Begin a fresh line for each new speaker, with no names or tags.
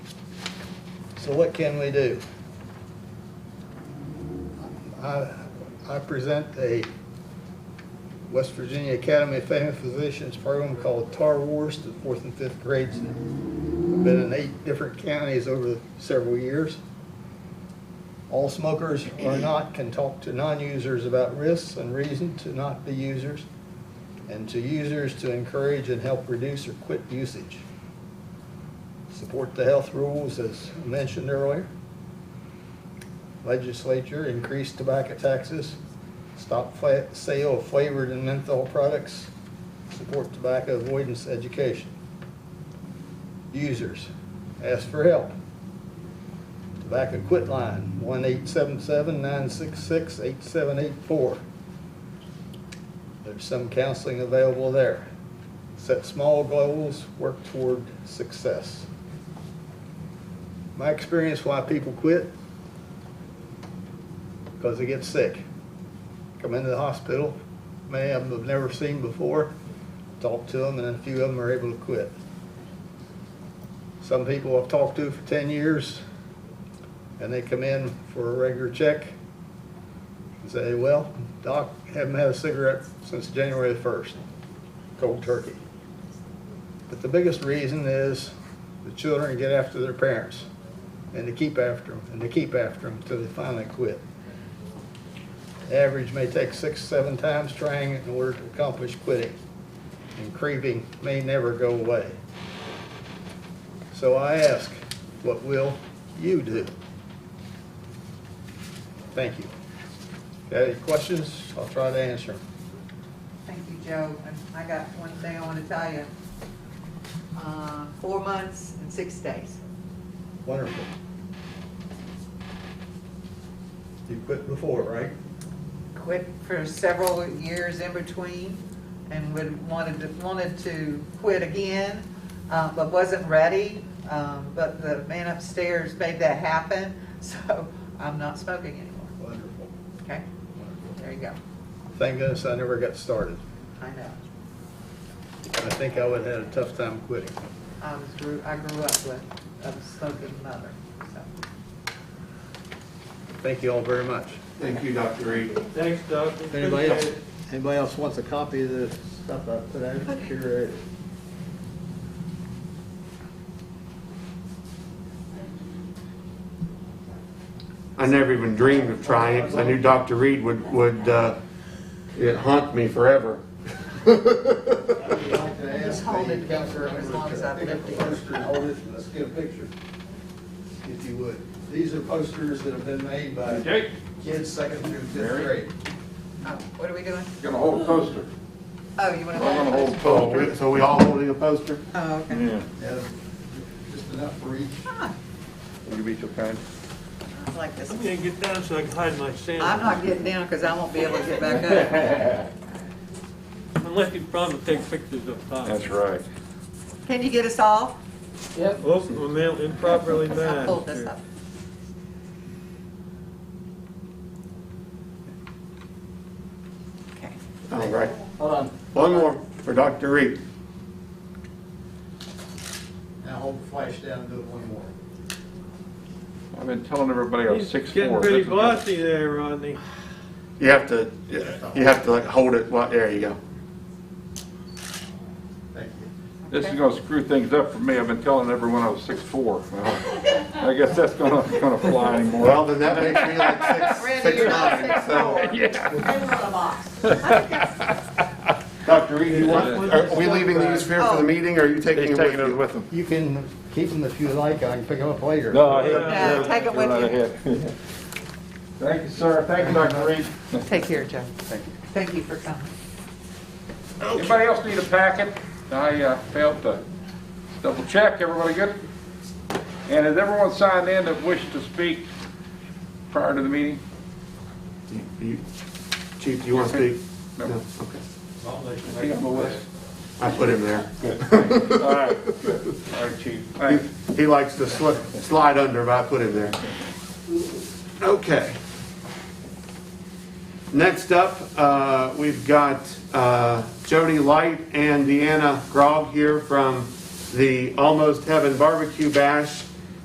So what can we do? I, I present a West Virginia Academy of Family Physicians program called TAR Wars to fourth and fifth grades. Been in eight different counties over several years. All smokers or not can talk to non-users about risks and reason to not be users, and to users to encourage and help reduce or quit usage. Support the health rules as mentioned earlier. Legislature increase tobacco taxes, stop fa- sale of flavored and menthol products, support tobacco avoidance education. Users, ask for help. Tobacco Quit Line, 1-877-966-8784. There's some counseling available there. Set small goals, work toward success. My experience why people quit, because they get sick. Come into the hospital, many of them have never seen before, talk to them, and a few of them are able to quit. Some people I've talked to for 10 years, and they come in for a regular check and say, well, doc, haven't had a cigarette since January the 1st, cold turkey. But the biggest reason is the children get after their parents, and they keep after them, and they keep after them until they finally quit. Average may take six, seven times trying in order to accomplish quitting, and craving may never go away. So I ask, what will you do? Thank you. Got any questions? I'll try to answer them.
Thank you, Joe. And I got one thing I want to tell you. Uh, Four months and six days.
Wonderful. You quit before, right?
Quit for several years in between and would, wanted to, wanted to quit again, uh, but wasn't ready. Um, But the man upstairs made that happen, so I'm not smoking anymore.
Wonderful.
Okay?
wonderful.
There you go.
Thank goodness I never got started.
I know.
I think I would have had a tough time quitting.
I was, grew I grew up with a smoking mother, so.
Thank you all very much.
Thank you, Dr. Reed.
Thanks, Doug.
If Anybody else, anybody else wants a copy of the stuff I put out here?
I never even dreamed of trying it, 'cause I knew Dr. Reed would, would, uh, it haunt me forever.
Just hold it together as long as I've lived here.
Hold it, let's get a picture, if you would. These are posters that have been made by
Jake,
kids second through fifth
Mary?
grade.
Oh, What are we doing?
Gonna hold a poster.
Oh, you want to?
We're gonna hold a poster.
So we all holding a poster?
Oh, okay.
Yeah.
Yeah, Just enough for each.
Will you be so kind?
I like this.
I'm gonna get down so I can hide my
I'm
sandals.
not getting down because I won't be able to get back up.
Unless you promise to take pictures of top.
That's right.
Can you get us all?
Oops, we're mail- Oh, improperly
I
manned.
pulled this up. Okay.
All right. Hold on. One more for Dr. Reed.
Now hold the flash down and do it one more.
I've been telling everybody I'm
He's
six
getting
four.
pretty bossy there, Rodney.
You have to, you have to like hold it, well, there you go.
Thank you.
This is gonna screw things up for me. I've been telling everyone I was six four. I guess that's gonna, gonna fly anymore.
Well, then that makes me like six,
Randy,
six
you're not
nine,
six
so.
four.
Yeah.
You're a little box.
Dr. Reed, you want, are we leaving these here
Oh.
for the meeting, or are you taking
He's
them with
taking
you?
it with him.
You can keep them if you like, I can pick them up later.
No, take it with you.
Thank you, sir. Thank you, Dr. Reed.
Take care, Joe. Thank you for coming.
Anybody else need a packet? I uh, failed to double check. Everybody good? And has everyone signed in that wished to speak prior to the meeting?
You- you- Chief, do you want to speak?
No.
Okay.
I think I'm a list.
I put him there.
All right. All right, chief. Thanks.
He- He likes to sli- slide under, but I put him there. Okay. Next up, uh, we've got uh, Jody Light and Deanna Grog here from the Almost Heaven Barbecue Bash